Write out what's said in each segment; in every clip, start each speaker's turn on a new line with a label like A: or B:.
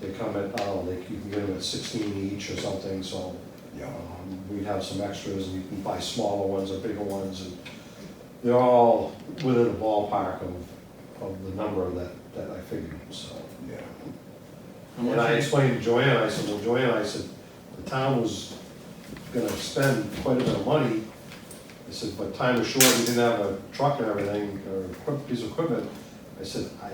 A: They come at, I don't know, like, you can get them at sixteen each or something, so
B: Yeah.
A: um, we'd have some extras, and you can buy smaller ones or bigger ones, and they're all within a ballpark of, of the number that, that I figured, so.
B: Yeah.
A: And I explained to Joanne, I said, well, Joanne, I said, the town was gonna spend quite a bit of money. I said, but time was short, we didn't have a truck and everything, or equip- piece of equipment. I said, I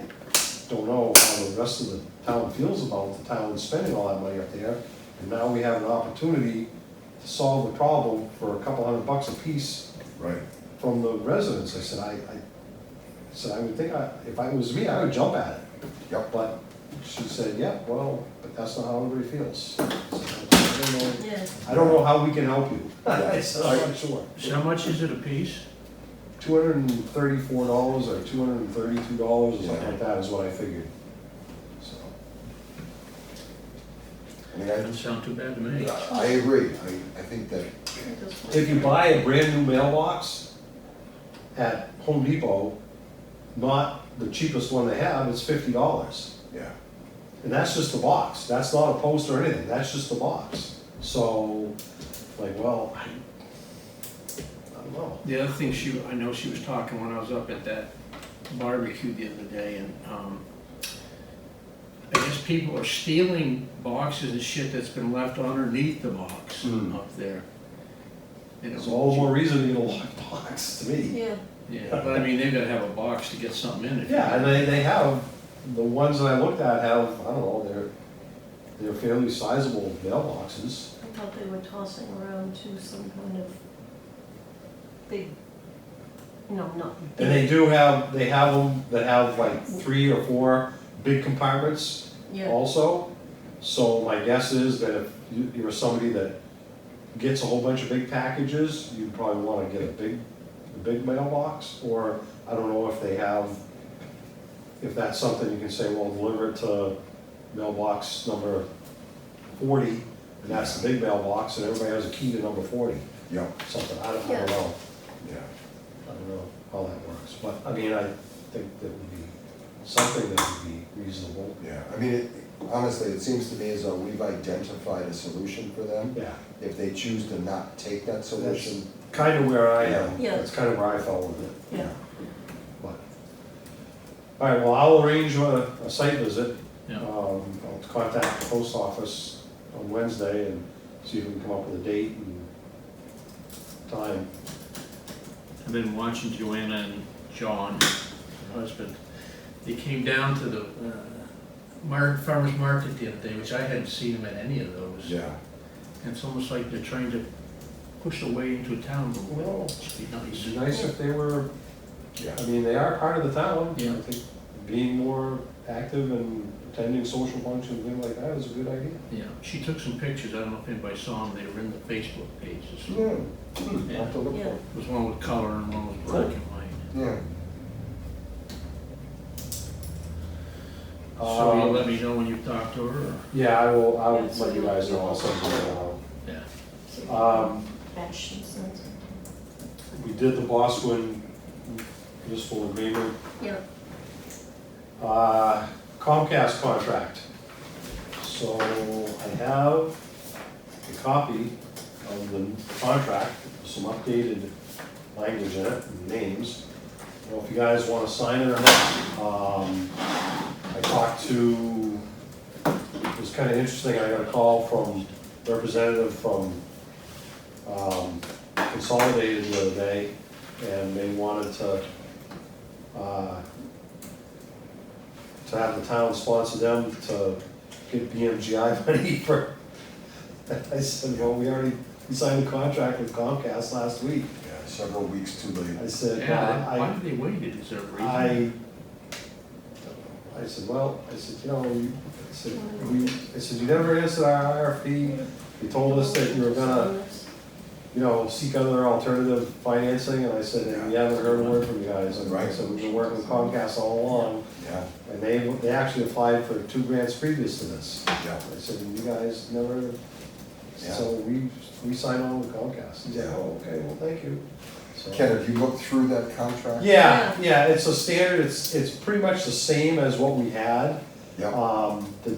A: don't know how the rest of the town feels about the town spending all that money up there. And now we have an opportunity to solve the problem for a couple hundred bucks apiece
B: Right.
A: from the residents. I said, I, I, I said, I would think, I- if I was me, I would jump at it.
B: Yep.
A: But she said, yeah, well, but that's not how everybody feels. I said, I don't know-
C: Yeah,
A: I don't know how we can help you. I said, I'm not sure.
D: So How much is it a piece?
A: Two hundred and thirty-four dollars or two hundred and thirty-two dollars or something like that is what I figured. So,
B: I mean, I,
D: Doesn't sound too bad to me.
B: I agree. I, I think that,
C: it goes fine.
A: If you buy a brand-new mailbox at Home Depot, not the cheapest one they have, it's fifty dollars.
B: yeah,
A: And that's just the box, that's not a post or anything, that's just the box. So, like, well, I, I don't know.
E: The other thing she, I know she was talking when I was up at that barbecue the other day, and, um, I guess people are stealing boxes and shit that's been left underneath the box
A: Hmm.
E: up there. You know,
A: It's all the more reason to get a locked box to me.
C: Yeah,
E: Yeah, but I mean, they've gotta have a box to get something in it.
A: Yeah, and they, they have, the ones that I looked at have, I don't know, they're, they're fairly sizable mailboxes.
C: I thought they were tossing around to some kind of big, no, not
A: And they
C: big,
A: do have, they have them that have like three or four big compartments.
C: yeah,
A: also. So my guess is that if you- you're somebody that gets a whole bunch of big packages, you probably wanna get a big, a big mailbox, or I don't know if they have, if that's something you can say, well, deliver it to mailbox number forty, and that's the big mailbox, and everybody has a key to number forty,
B: yeah,
A: something, I don't, I don't
C: Yeah.
A: know.
B: yeah.
A: I don't know how that works, but, I mean, I think that would be something that would be reasonable.
B: Yeah, I mean, it- honestly, it seems to me as though we've identified a solution for them.
A: Yeah.
B: If they choose to not take that solution,
A: kind of where I am.
C: Yeah.
A: That's kind of where I fell with it,
C: yeah.
A: but. All right, well, I'll arrange a, a site visit.
D: Yeah.
A: Um, I'll contact the post office on Wednesday and see if we can come up with a date and time.
D: I've been watching Joanna and John, her husband. They came down to the uh, mar- farmer's market the other day, which I hadn't seen them at any of those.
B: yeah,
D: And it's almost like they're trying to push their way into town a little
A: Well,
D: bit. It'd be
A: it'd
D: nice.
A: be nice if they were,
B: yeah,
A: I mean, they are part of the town.
D: Yeah.
A: I think being more active and attending social functions, things like that is a good idea.
D: Yeah, she took some pictures, I don't know if anybody saw them, they were in the Facebook page. or something.
B: yeah,
D: Yeah.
B: I'll have to look for it.
D: There was one with color and one was black and white.
B: yeah.
D: So
A: Um,
D: you'll let me know when you've talked to her, or?
A: Yeah, I will, I'll
C: Yeah, so
A: let you
C: you'll-
A: guys know,
C: you'll-
A: I'll send you know.
D: Yeah.
C: So you
A: Um,
C: can Batch and send it.
A: We did the Bosquen municipal agreement.
C: Yeah,
A: Uh, Comcast contract. So I have a copy of the contract, with some updated language in it, and names. I don't know if you guys want to sign it or not. Um, I talked to, it was kind of interesting, I got a call from representative from um, Consolidated the other day, and they wanted to uh, to have the town sponsor them to get BMGI money for, I said, well, we already signed a contract with Comcast last week.
B: Yeah, several weeks too late.
A: I said,
D: Yeah,
A: "Well,
D: they- why
A: I,
D: did they wait, it? Is there a reason?
A: I, I said, well, I said, you know, you, I said, we, I said, you never answered our RFP. You told us that you were gonna, you know, seek other alternative financing, and I said, and we haven't heard a word from you guys. And I
B: Right.
A: said, we've been working with Comcast all along,
B: Yeah,
A: and they, they actually applied for two grants previous to this.
B: yeah,
A: I said, you guys never, so we, we sign on with Comcast. He's like, oh, okay, well, thank you. So-
B: Ken, have you looked through that contract?
A: Yeah, yeah, it's a standard, it's, it's pretty much the same as what we had.
B: Yeah.
A: Um, the